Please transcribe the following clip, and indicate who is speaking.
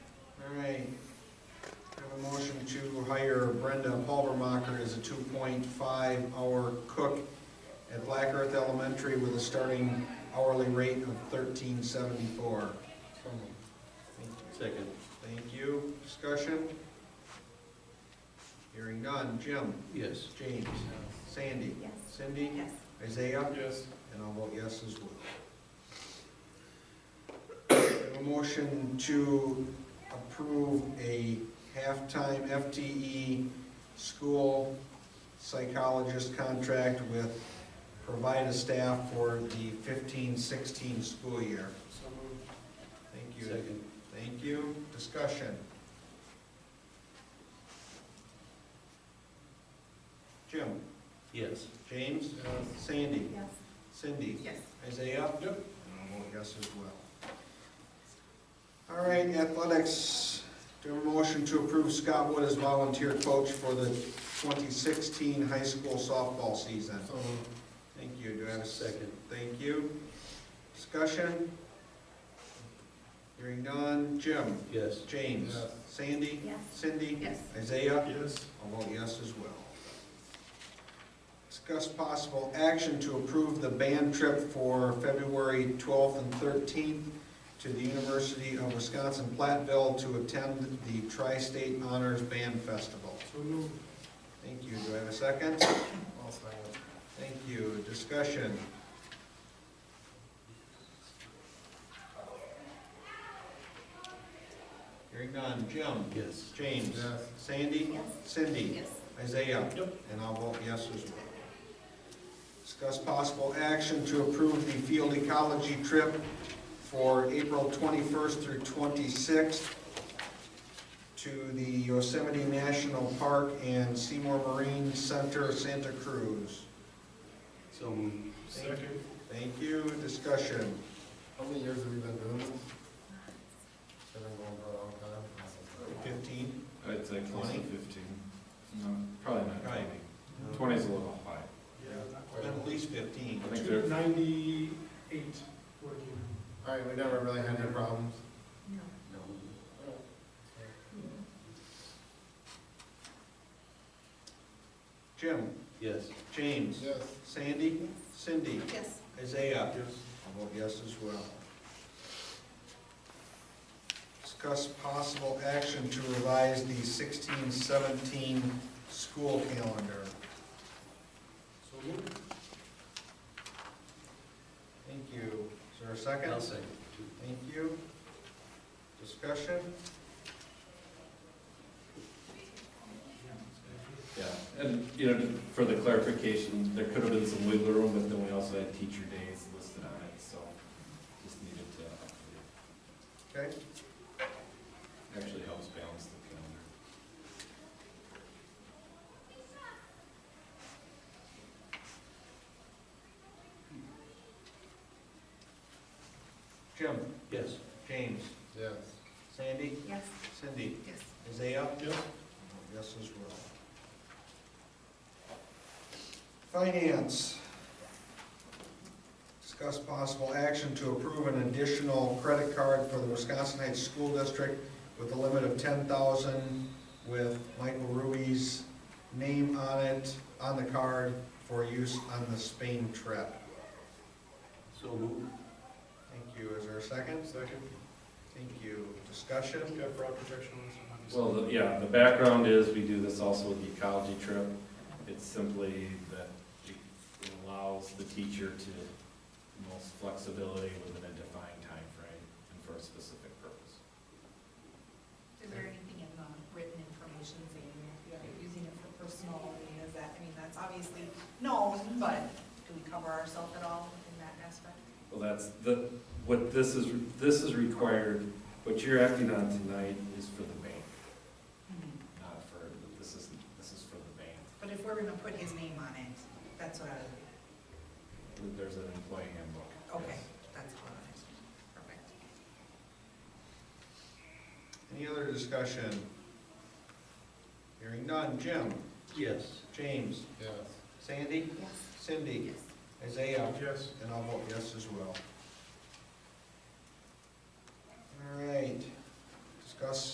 Speaker 1: Brenda Halvermacher is a 2.5-hour cook at Black Earth Elementary with a starting hourly rate of 1374.
Speaker 2: Second.
Speaker 1: Thank you. Discussion? Hearing none. Jim?
Speaker 2: Yes.
Speaker 1: James? Sandy?
Speaker 3: Yes.
Speaker 1: Cindy?
Speaker 3: Yes.
Speaker 1: Isaiah?
Speaker 2: Yes.
Speaker 1: And I'll vote yes as well. I have A motion to approve a halftime FTE school psychologist contract with Provida staff for the 15-16 school year.
Speaker 2: So moved.
Speaker 1: Thank you.
Speaker 2: Second.
Speaker 1: Thank you. Discussion. Jim?
Speaker 2: Yes.
Speaker 1: James? Sandy?
Speaker 3: Yes.
Speaker 1: Cindy?
Speaker 3: Yes.
Speaker 1: Isaiah? Yep. And I'll vote yes as well. All right, athletics, do I have a motion to approve Scott Wood as volunteer coach for the 2016 high school softball season. Thank you, do I have a second?
Speaker 2: Second.
Speaker 1: Thank you. Discussion? Hearing none, Jim?
Speaker 2: Yes.
Speaker 1: James?
Speaker 2: Yes.
Speaker 1: Sandy?
Speaker 3: Yes.
Speaker 1: Cindy?
Speaker 3: Yes.
Speaker 1: Isaiah?
Speaker 2: Yes.
Speaker 1: I'll vote yes as well. Discuss possible action to approve the band trip for February 12th and 13th to the University of Wisconsin-Platteville to attend the Tri-State Honors Band Festival.
Speaker 2: So moved.
Speaker 1: Thank you. Do I have a second?
Speaker 2: I'll second.
Speaker 1: Thank you. Discussion? Hearing none. Jim?
Speaker 2: Yes.
Speaker 1: James?
Speaker 2: Yes.
Speaker 1: Sandy?
Speaker 3: Yes.
Speaker 1: Cindy?
Speaker 3: Yes.
Speaker 1: Isaiah?
Speaker 2: Yep.
Speaker 1: And I'll vote yes as well. Discuss possible action to approve the field ecology trip for April 21st through 26th to the Yosemite National Park and Seymour Marine Center, Santa Cruz.
Speaker 2: So moved.
Speaker 1: Second. Thank you. Discussion.
Speaker 4: How many years have we been doing this? Been going for a long time.
Speaker 1: 15?
Speaker 5: I'd say close to
Speaker 1: 20?
Speaker 5: fifteen. No, probably not
Speaker 1: Right.
Speaker 5: twenty. Twenty's a little high.
Speaker 1: Been At least 15.
Speaker 5: I think they're,
Speaker 6: Ninety-eight working.
Speaker 4: All right, we never really had any problems.
Speaker 3: No.
Speaker 2: No.
Speaker 1: Jim?
Speaker 2: Yes.
Speaker 1: James?
Speaker 4: Yes.
Speaker 1: Sandy? Cindy?
Speaker 3: Yes.
Speaker 1: Isaiah?
Speaker 2: Yes.
Speaker 1: I'll vote yes as well. Discuss possible action to revise the sixteen seventeen school calendar.
Speaker 2: So moved.
Speaker 1: Thank you. Is there a second?
Speaker 2: I'll second.
Speaker 1: Thank you. Discussion?
Speaker 5: yeah, and, you know, for the clarification, there could have been some wiggle room, but then we also had teacher days listed on it, so just needed to, update.
Speaker 1: Okay,
Speaker 5: actually helps balance the calendar.
Speaker 1: Jim,
Speaker 2: Yes.
Speaker 1: James,
Speaker 4: Yes.
Speaker 1: Sandy,
Speaker 3: Yes.
Speaker 1: Cindy,
Speaker 3: Yes.
Speaker 1: Isaiah?
Speaker 2: Yep.
Speaker 1: Yes as well. Finance. Discuss possible action to approve an additional credit card for the Wisconsin Heights School District with a limit of ten thousand with Michael Rui's name on it, on the card, for use on the Spain trip.
Speaker 2: So moved.
Speaker 1: Thank you. Is there a second?
Speaker 6: Second.
Speaker 1: Thank you. Discussion?
Speaker 6: We've got fraud protection on this one.
Speaker 5: Well, the- yeah, the background is, we do this also with the ecology trip. It's simply that it allows the teacher to most flexibility within a defined time frame and for a specific purpose.
Speaker 3: Is there anything in the written information saying if you're using it for personal, I mean, is that, I mean, that's obviously known, but do we cover ourselves at all in that aspect?
Speaker 5: Well, that's, the, what this is, this is required, what you're acting on tonight is for the bank, not for, this is, this is for the bank.
Speaker 3: But if we're gonna put his name on it, that's what I was,
Speaker 5: There's an employee handbook.
Speaker 3: okay,
Speaker 5: yes.
Speaker 3: that's what I was, perfect.
Speaker 1: Any other discussion? Hearing none. Jim?
Speaker 2: Yes.
Speaker 1: James?
Speaker 4: Yes.
Speaker 1: Sandy?
Speaker 3: Yes.
Speaker 1: Cindy?
Speaker 3: Yes.
Speaker 1: Isaiah?
Speaker 6: Yes.
Speaker 1: And I'll vote yes as well. All right, discuss